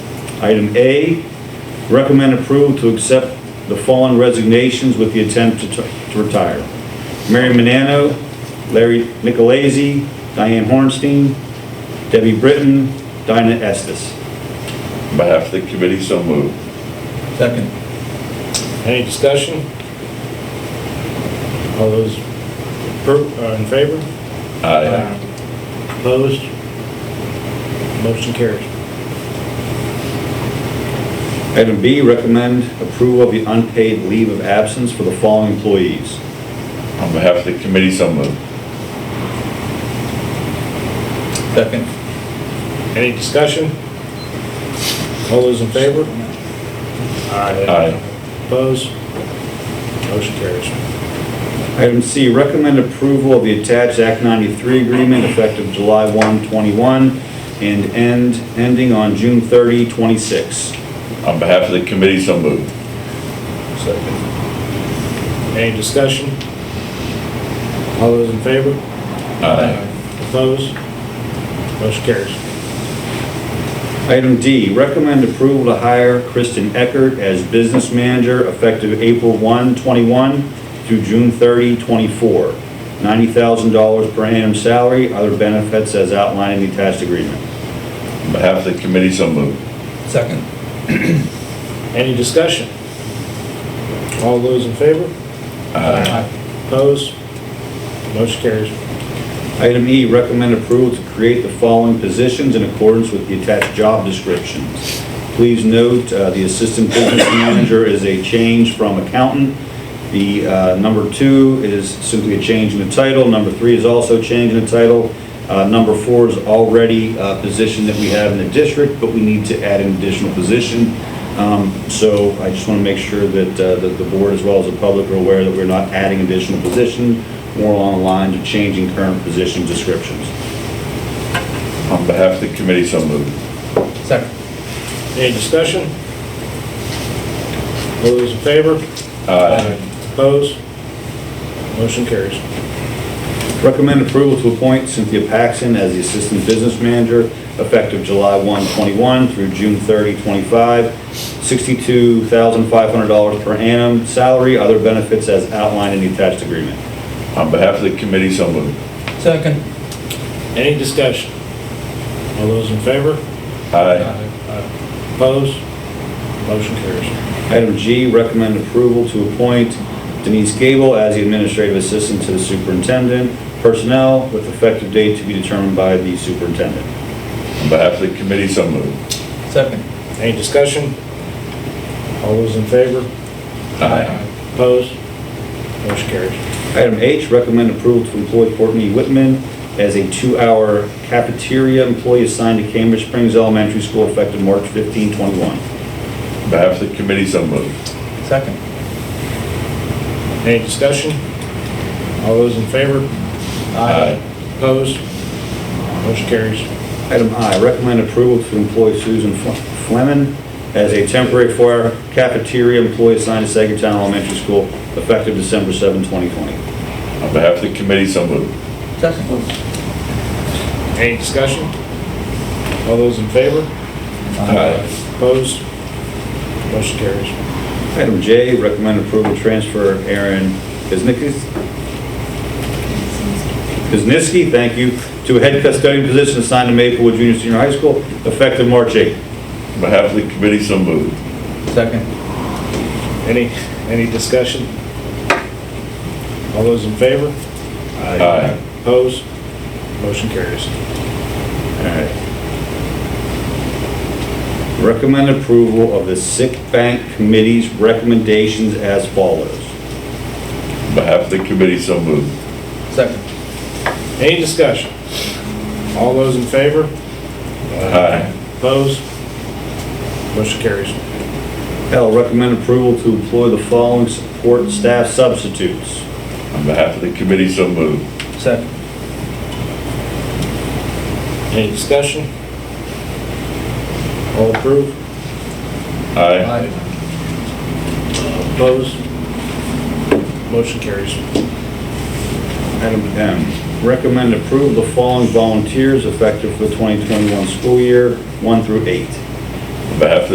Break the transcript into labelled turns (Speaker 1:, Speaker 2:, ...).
Speaker 1: Item A, recommend approval to accept the following resignations with the intent to to retire. Mary Manano, Larry Nicolazzi, Diane Hornstein, Debbie Britton, Dinah Estes.
Speaker 2: On behalf of the committee, so moved.
Speaker 3: Second.
Speaker 4: Any discussion? All those per- uh, in favor?
Speaker 2: Aye.
Speaker 4: Opposed? Motion carries.
Speaker 1: Item B, recommend approval of the unpaid leave of absence for the following employees.
Speaker 2: On behalf of the committee, so moved.
Speaker 3: Second.
Speaker 4: Any discussion? All those in favor? Aye.
Speaker 2: Aye.
Speaker 4: Opposed? Motion carries.
Speaker 1: Item C, recommend approval of the attached Act 93 agreement effective July 1, 21, and end, ending on June 30, 26.
Speaker 2: On behalf of the committee, so moved.
Speaker 3: Second.
Speaker 4: Any discussion? All those in favor?
Speaker 2: Aye.
Speaker 4: Opposed? Motion carries.
Speaker 1: Item D, recommend approval to hire Kristen Eckert as business manager effective April 1, 21 through June 30, 24. $90,000 per annum salary, other benefits as outlined in the attached agreement.
Speaker 2: On behalf of the committee, so moved.
Speaker 3: Second.
Speaker 4: Any discussion? All those in favor? Aye. Opposed? Motion carries.
Speaker 1: Item E, recommend approval to create the following positions in accordance with the attached job descriptions. Please note, uh, the assistant business manager is a change from accountant. The uh, number two is simply a change in the title. Number three is also a change in the title. Uh, Number four is already a position that we have in the district, but we need to add an additional position. Um, So I just want to make sure that uh, that the board, as well as the public, are aware that we're not adding additional positions, more along the lines of changing current position descriptions.
Speaker 2: On behalf of the committee, so moved.
Speaker 3: Second.
Speaker 4: Any discussion? All those in favor?
Speaker 2: Aye.
Speaker 4: Opposed? Motion carries.
Speaker 1: Recommend approval to appoint Cynthia Paxton as the Assistant Business Manager effective July 1, 21 through June 30, 25. $62,500 per annum salary, other benefits as outlined in the attached agreement.
Speaker 2: On behalf of the committee, so moved.
Speaker 3: Second.
Speaker 4: Any discussion? All those in favor?
Speaker 2: Aye.
Speaker 4: Opposed? Motion carries.
Speaker 1: Item G, recommend approval to appoint Denise Gable as the Administrative Assistant to the Superintendent Personnel with effective date to be determined by the Superintendent.
Speaker 2: On behalf of the committee, so moved.
Speaker 3: Second.
Speaker 4: Any discussion? All those in favor?
Speaker 2: Aye.
Speaker 4: Opposed? Motion carries.
Speaker 1: Item H, recommend approval to employ Courtney Whitman as a two-hour cafeteria employee assigned to Cambridge Springs Elementary School effective March 15, 21.
Speaker 2: On behalf of the committee, so moved.
Speaker 3: Second.
Speaker 4: Any discussion? All those in favor? Opposed? Motion carries.
Speaker 1: Item I, recommend approval to employ Susan Fle- Fleming as a temporary four-hour cafeteria employee assigned to Sagertown Elementary School effective December 7, 2020.
Speaker 2: On behalf of the committee, so moved.
Speaker 3: Second.
Speaker 4: Any discussion? All those in favor?
Speaker 2: Aye.
Speaker 4: Opposed? Motion carries.
Speaker 1: Item J, recommend approval to transfer Aaron Kuznicki Kuzniski, thank you, to a head custodian position assigned to Maplewood Junior Senior High School effective March 8.
Speaker 2: On behalf of the committee, so moved.
Speaker 3: Second.
Speaker 4: Any, any discussion? All those in favor?
Speaker 2: Aye.
Speaker 4: Opposed? Motion carries.
Speaker 1: Recommend approval of the sick bank committee's recommendations as follows.
Speaker 2: On behalf of the committee, so moved.
Speaker 3: Second.
Speaker 4: Any discussion? All those in favor?
Speaker 2: Aye.
Speaker 4: Opposed? Motion carries.
Speaker 1: L, recommend approval to employ the following support staff substitutes.
Speaker 2: On behalf of the committee, so moved.
Speaker 3: Second.
Speaker 4: Any discussion? All approved?
Speaker 2: Aye.
Speaker 4: Opposed? Motion carries.
Speaker 1: Item M, recommend approval of the following volunteers effective for the 2021 school year, 1 through 8.
Speaker 2: On behalf of the